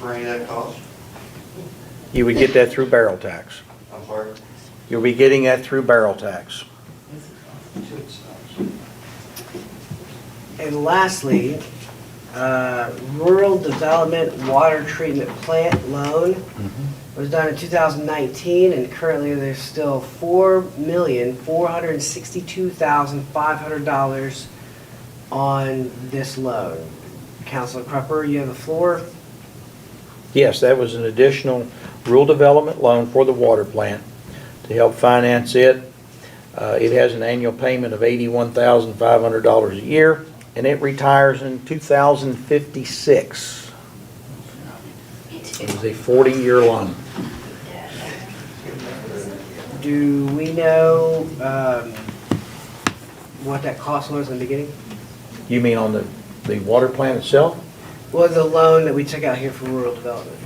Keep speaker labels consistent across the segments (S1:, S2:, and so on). S1: for any of that cost?
S2: You would get that through barrel tax.
S1: I'm sorry?
S2: You'll be getting that through barrel tax.
S1: uh,
S3: And lastly, uh, rural development water treatment plant loan was done in 2019, and currently there's still $4,462,500 on this loan. Councilor Crupper, you have the floor.
S2: Yes, that was an additional rural development loan for the water plant to help finance it. Uh, It has an annual payment of $81,500 a year, and it retires in 2056. It was a 40-year loan.
S3: Do we know um, what that cost was in the beginning?
S2: You mean on the, the water plant itself?
S3: Well, the loan that we took out here for rural development?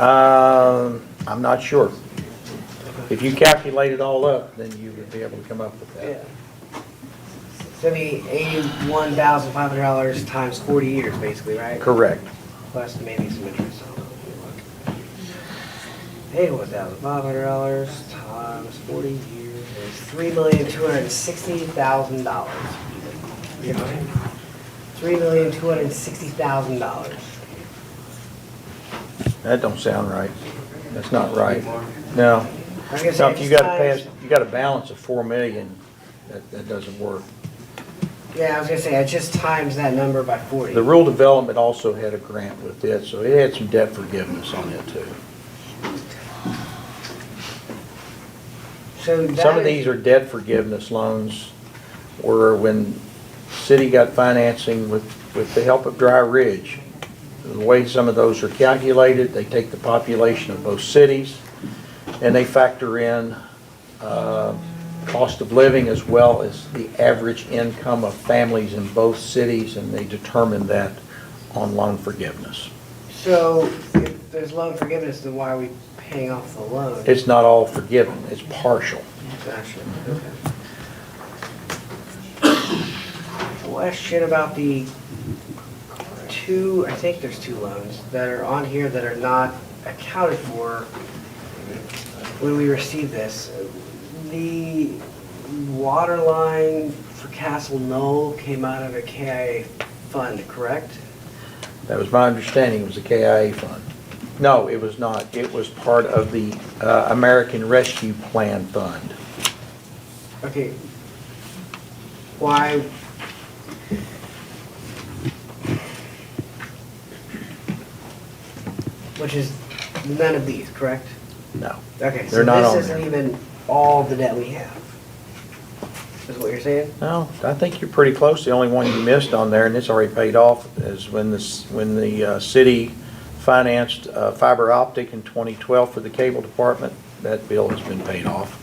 S2: Um, I'm not sure. If you calculate it all up, then you would be able to come up with
S3: Yeah.
S2: that.
S3: So it'd be eighty-one thousand five hundred dollars times forty years, basically, right?
S2: Correct.
S3: Plus maybe some interest. Eighty-one thousand five hundred dollars times forty years is three million two hundred and sixty thousand dollars. Three million two hundred and sixty thousand dollars.
S2: That don't sound right. That's not right. No.
S3: I guess
S2: No, if you gotta
S3: exercise-
S2: pass, you got a balance of four million, that, that doesn't work.
S3: Yeah, I was gonna say, I just times that number by forty.
S2: The rural development also had a grant with it, so it had some debt forgiveness on it too.
S3: So
S2: Some
S3: that
S2: of
S3: is-
S2: these are debt forgiveness loans, or when city got financing with, with the help of Dry Ridge. The way some of those are calculated, they take the population of both cities, and they factor in uh, cost of living as well as the average income of families in both cities, and they determine that on loan forgiveness.
S3: So if there's loan forgiveness, then why are we paying off the loan?
S2: It's not all forgiven, it's partial.
S3: Gotcha, okay. Question about the two, I think there's two loans that are on here that are not accounted for when we received this. The water line for Castle Knoll came out of a KIA fund, correct?
S2: That was my understanding, it was the KIA fund. No, it was not. It was part of the uh, American Rescue Plan Fund.
S3: Okay. Why? Which is none of these, correct?
S2: No.
S3: Okay, so
S2: They're not on
S3: this isn't
S2: there.
S3: even all the debt we have. Is what you're saying?
S2: No, I think you're pretty close. The only one you missed on there, and it's already paid off, is when this, when the uh, city financed uh, fiber optic in 2012 for the cable department. That bill has been paid off.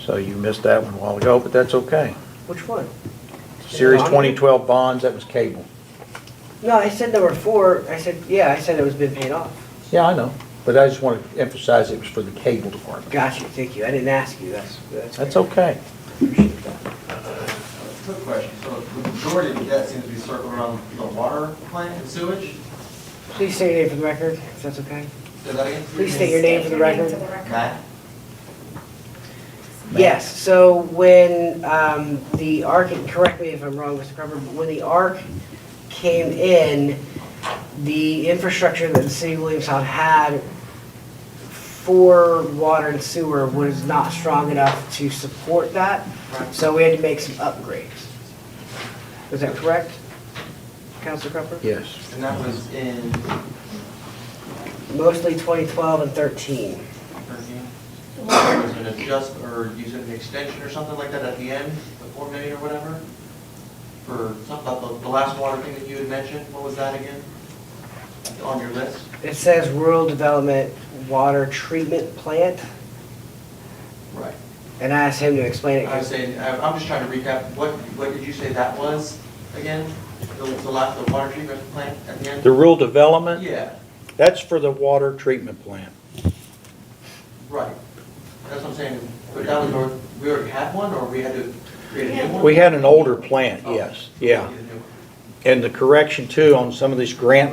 S2: So you missed that one a while ago, but that's okay.
S3: Which one?
S2: Series 2012 bonds, that was cable.
S3: No, I said number four, I said, yeah, I said it was been paid off.
S2: Yeah, I know, but I just want to emphasize it was for the cable department.
S3: Got you, thank you, I didn't ask you, that's, that's.
S2: That's okay.
S3: Appreciate that.
S4: Quick question, so the majority of the debt seems to be circled around the water plant and sewage?
S3: Please state your name for the record, if that's okay.
S4: Say that again?
S3: Please state your name for the record.
S4: Matt?
S3: Yes, so when um, the ARC, and correct me if I'm wrong, Mr. Carver, but when the ARC came in, the infrastructure that the city of Williamstown had for water and sewer was not strong enough to support that, so we had to make some upgrades. Is that correct, Councilor Crawford?
S2: Yes.
S4: And that was in
S3: Mostly 2012 and 13.
S4: thirteen? There was an adjust, or you said an extension or something like that at the end, the four million or whatever? For something about the, the last water thing that you had mentioned, what was that again? On your list?
S3: It says rural development water treatment plant,
S4: Right.
S3: and I asked him to explain it.
S4: I was saying, I- I'm just trying to recap, what, what did you say that was again? The, the last, the water treatment plant at the
S2: The
S4: end?
S2: rural development,
S4: Yeah.
S2: that's for the water treatment plant.
S4: Right, that's what I'm saying, but that was, our- we already had one, or we had to create a new one?
S2: We had an older plant, yes, yeah.
S4: Create a new one.
S2: And the correction too on some of these grant